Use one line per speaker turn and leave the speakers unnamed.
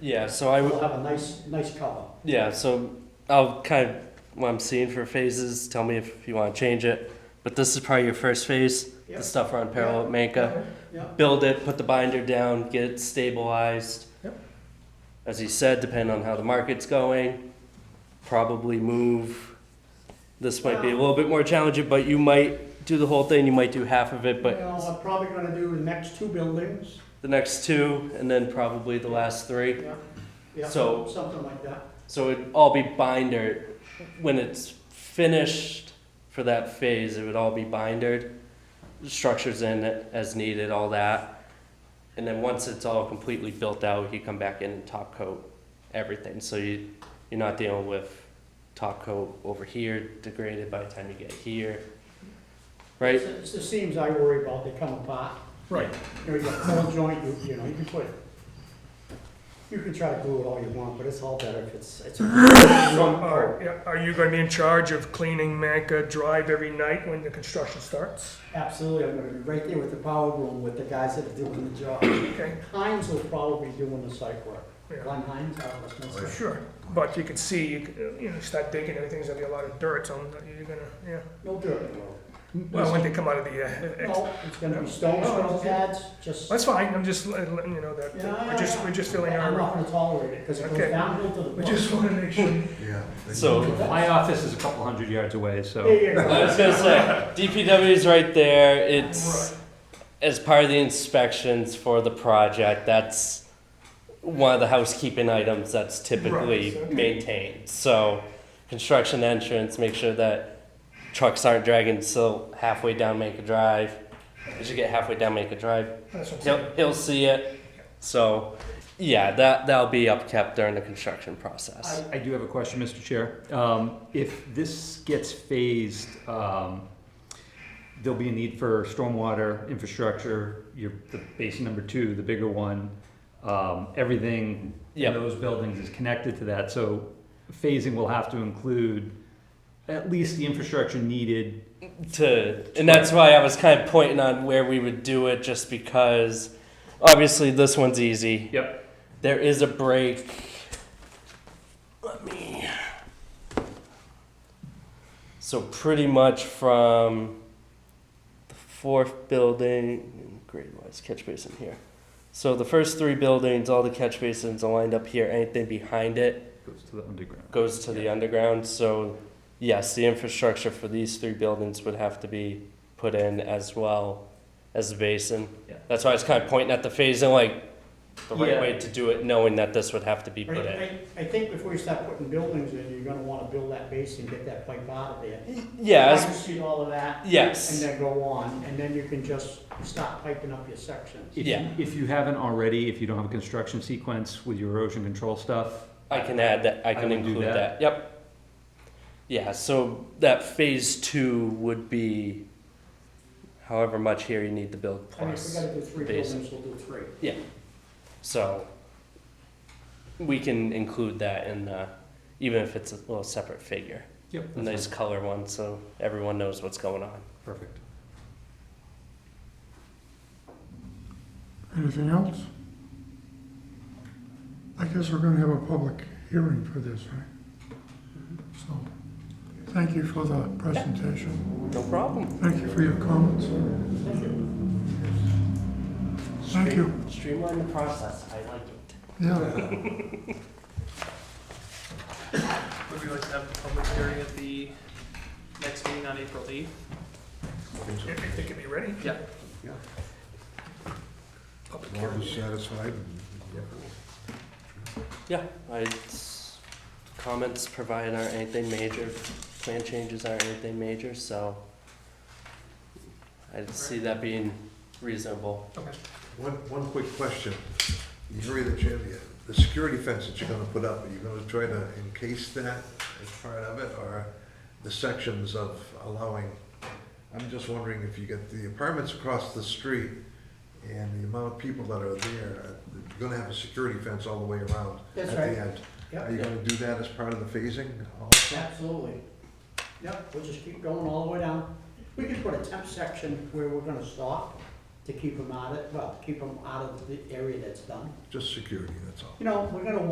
Yeah, so I
It'll
would,
have a nice, nice color.
yeah, so I'll kind of, what I'm seeing for phases, tell me if you want to change it. But this is probably your first phase,
Yeah.
the stuff around parallel Manka.
Yeah,
Build it, put the binder down, get it stabilized.
Yep.
As you said, depending on how the market's going, probably move. This might
Um.
be a little bit more challenging, but you might do the whole thing, you might do half of it, but
Well, I'm probably gonna do the next two buildings.
the next two, and then probably the last three.
Yeah, yeah,
So-
Something like that.
So it'd all be binder when it's finished for that phase. It would all be bindered, structures in it as needed, all that. And then once it's all completely built out, you come back in and top coat everything. So you you're not dealing with top coat over here degraded by the time you get here, right?
It's the seams I worry about, they come apart.
Right.
You know, you got four joint, you, you know, you can put, you can try to glue it all you want, but it's all better if it's, it's.
So are, Uh, yeah, are you gonna be in charge of cleaning Manca Drive every night when the construction starts?
Absolutely, I'm gonna be right there with the power room with the guys that are doing the job.
Okay,
Hines will probably be doing the site work.
yeah,
Glenn Hines, out of Wisconsin.
for sure. But you can see, you, could, uh, you know, start digging, everything's gonna be a lot of dirt, so you're gonna, yeah.
No dirt in the road.
Well, when they come out of the, uh, ex-
No, it's gonna be stone, stone pads, just.
that's fine, I'm just let- letting you know that,
Yeah,
that we're just, we're just filling
I'm not
our,
gonna tolerate it, because it goes
Okay.
downhill to the.
we
bottom.
just wanna make sure.
Yeah.
So
My office is a couple hundred yards away, so.
Yeah, yeah,
I
yeah.
was gonna say DPW is right there. It's as part of the inspections for the project. That's one of the housekeeping items that's typically
Right, okay.
maintained. So construction entrance, make sure that trucks aren't dragging silt halfway down Make a Drive. As you get halfway down Make a Drive,
That's what I'm saying.
he'll he'll see it. So yeah, that that'll be upkept during the construction process.
I do have a question, Mr. Chair. Um, if this gets phased, um, there'll be a need for stormwater infrastructure, your, the basin number two, the bigger one. Um, everything
Yep.
in those buildings is connected to that, so phasing will have to include at least the infrastructure needed.
to and that's why I was kind of pointing on where we would do it just because obviously this one's easy.
Yep.
There is a break. Let me So pretty much from the fourth building grade wise catch basin here. So the first three buildings, all the catch basins are lined up here. Anything behind it
Goes to the underground.
goes to the underground, so yes, the infrastructure for these three buildings would have to be put in as well as the basin.
Yeah.
That's why I was kind of pointing at the phasing, like, the right
Yeah.
way to do it, knowing that this would have to be
I,
put in.
I, I think before you start putting buildings in, you're gonna wanna build that base and get that pipe out of there.
Yeah, as-
Line sheet, all of that.
Yes.
And then go on, and then you can just stop piping up your sections.
If,
Yeah.
you- if you haven't already, if you don't have a construction sequence with your erosion control stuff,
I can add that, I
I
can
would do
include
that.
that, yep. Yeah, so that phase two would be however much here you need to build
I mean, if we
plus,
gotta do three
Base.
buildings, we'll do three.
so. We can include that in the, even if it's a little separate figure.
Yep.
A nice color one so everyone knows what's going on.
Perfect.
Anything else? I guess we're gonna have a public hearing for this, right? So, thank you for the presentation.
No problem.
Thank you for your comments. Thank you.
Streamline the process. I like it.
Yeah,
Would we like to have a public hearing at the next meeting on April eighth?
If if they can be ready.
Yeah.
Public
Board
hearing.
is satisfied.
Yeah. I, it's- comments provided aren't anything major. Plan changes aren't anything major, so I see that being reasonable.
Okay.
One, one quick question. You're the champion. The security fence that you're gonna put up, are you gonna try to encase that as part of it, or the sections of allowing? I'm just wondering if you get the apartments across the street and the amount of people that are there, you're gonna have a security fence all the way around at
That's
the
right.
end. Are
Yep,
you gonna do that as part of the phasing also?
absolutely. Yep, we'll just keep going all the way down. We can put a temp section where we're gonna stop
to keep them out of, well, keep them out of the area that's done.
Just security, that's all.
You know, we're gonna